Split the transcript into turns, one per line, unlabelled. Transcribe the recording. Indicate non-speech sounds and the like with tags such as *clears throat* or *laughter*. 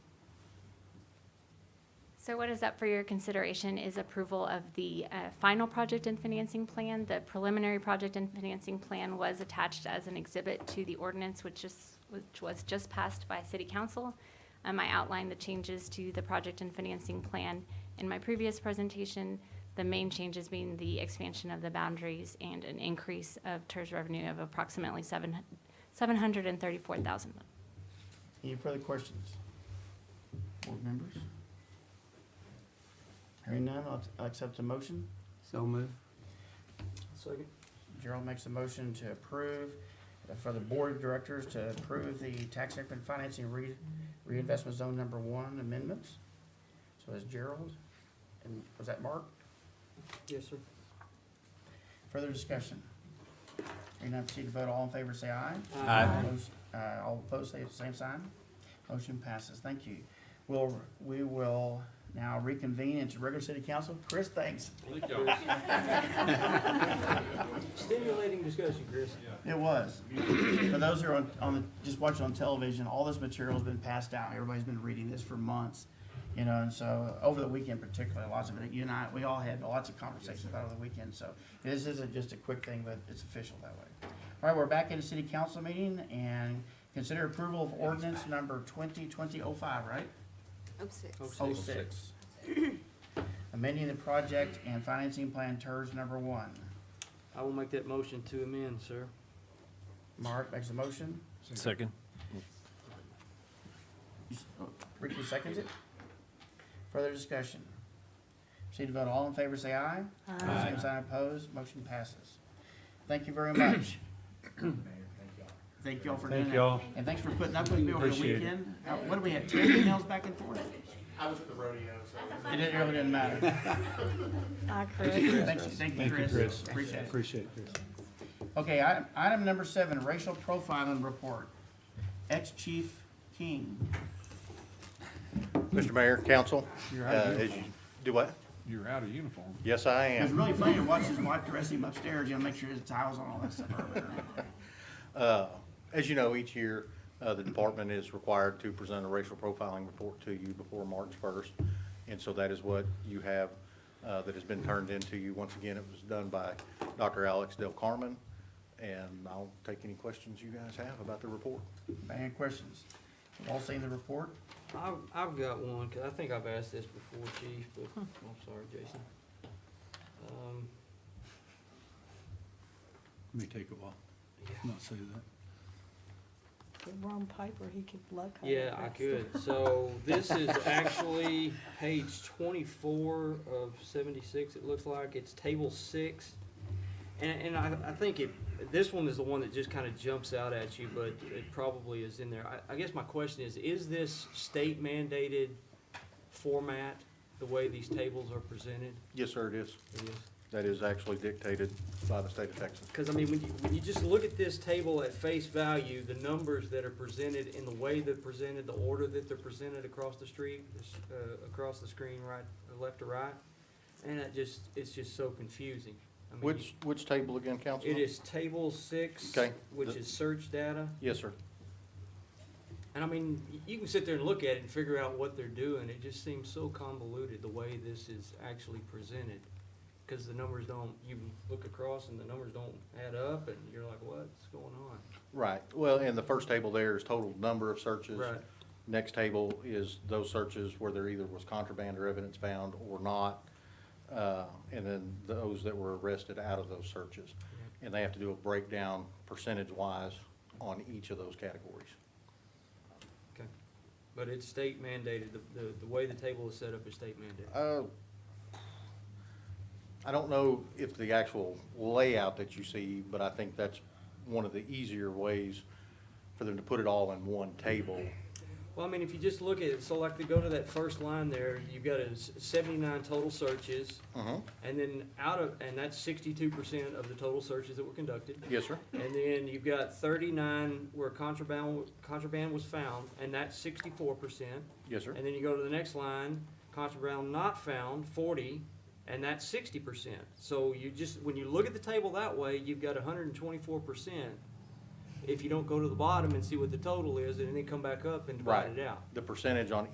So what is up for your consideration is approval of the uh, final project and financing plan. The preliminary project and financing plan was attached as an exhibit to the ordinance, which is, which was just passed by city council. Um, I outlined the changes to the project and financing plan in my previous presentation. The main changes being the expansion of the boundaries and an increase of TERS revenue of approximately seven, seven hundred and thirty-four thousand.
Any further questions? Board members? Hearing none, I'll I'll accept the motion.
So move.
Second. Gerald makes a motion to approve, uh, for the Board of Directors to approve the tax increment financing re- reinvestment zone number one amendments. So is Gerald, and was that Mark?
Yes, sir.
Further discussion? Hearing none, proceed to vote. All in favor, say aye.
Aye.
Those, uh, All opposed, say the same sign. Motion passes. Thank you. We'll, we will now reconvene into regular city council. Chris, thanks.
Stimulating discussion, Chris.
It was. For those who are on, on the, just watching on television, all this material's been passed out. Everybody's been reading this for months. You know, and so over the weekend particularly, lots of it, you and I, we all had lots of conversations about it over the weekend, so this isn't just a quick thing, but it's official that way. All right, we're back in the city council meeting and consider approval of ordinance number twenty twenty oh five, right?
Oh, six.
Oh, six.
Oh six. *clears throat* Amending the project and financing plan TERS number one.
I will make that motion to amend, sir.
Mark makes a motion.
Second.
oh, Ricky seconds it. Further discussion? Proceed to vote. All in favor, say aye.
Aye.
Same sign opposed, motion passes. Thank you very *clears throat* much. Thank y'all for doing
Thank
that.
y'all.
And thanks for putting up with me over the
Appreciate it.
weekend. Uh, What do we have, ten emails back and forth? I was at the rodeo, so. It didn't, really didn't matter. *laughs* Thanks, thank you, Chris. Appreciate it.
Appreciate it.
Okay, item, item number seven, racial profiling report. Ex-Chief King.
Mr. Mayor, council,
You're
uh,
out of
as you, do what?
You're out of uniform.
Yes, I
It was
am.
really funny to watch his wife dress him upstairs, you know, make sure his towels on, all that stuff.
Uh, As you know, each year, uh, the department is required to present a racial profiling report to you before March 1st. And so that is what you have uh, that has been turned into you. Once again, it was done by Dr. Alex Del Carmen. And I'll take any questions you guys have about the report.
Any questions? We've All seen the report?
I've, I've got one, because I think I've asked this before, Chief, but I'm sorry, Jason. Um,
May take a while,
yeah.
not say that.
Get Ron Piper, he could luck. on
Yeah, I
this.
could. So this is actually page twenty-four of seventy-six, it looks like. It's table six. And, and I, I think it, this one is the one that just kind of jumps out at you, but it probably is in there. I, I guess my question is, is this state mandated format, the way these tables are presented?
Yes, sir, it is.
It is.
That is actually dictated by the state of Texas.
Because I mean, when you, when you just look at this table at face value, the numbers that are presented and the way they're presented, the order that they're presented across the street, this, uh, across the screen, right, left to right, and it just, it's just so confusing. I mean,
Which, which table again,
It
Councilman?
is table six,
Okay.
which
The-
is search data,
Yes, sir.
and I mean, y- you can sit there and look at it and figure out what they're doing, it just seems so convoluted the way this is actually presented. Because the numbers don't, you look across and the numbers don't add up, and you're like, what's going on?
Right, well, and the first table there is total number of searches.
Right.
Next table is those searches where there either was contraband or evidence found or not. Uh, and then those that were arrested out of those searches. And they have to do a breakdown percentage-wise on each of those categories.
Okay, but it's state mandated, the, the, the way the table is set up is state mandated.
Uh, I don't know if the actual layout that you see, but I think that's one of the easier ways for them to put it all in one table.
Well, I mean, if you just look at it, so like to go to that first line there, you've got a s- seventy-nine total searches,
Mhm.
and then out of, and that's sixty-two percent of the total searches that were conducted.
Yes, sir?
And then you've got thirty-nine where contraband, contraband was found, and that's sixty-four percent.
Yes, sir?
And then you go to the next line, contraband not found, forty, and that's sixty percent. So you just, when you look at the table that way, you've got hundred and twenty-four percent. If you don't go to the bottom and see what the total is, and then come back up and divide it
Right.
out.
The percentage on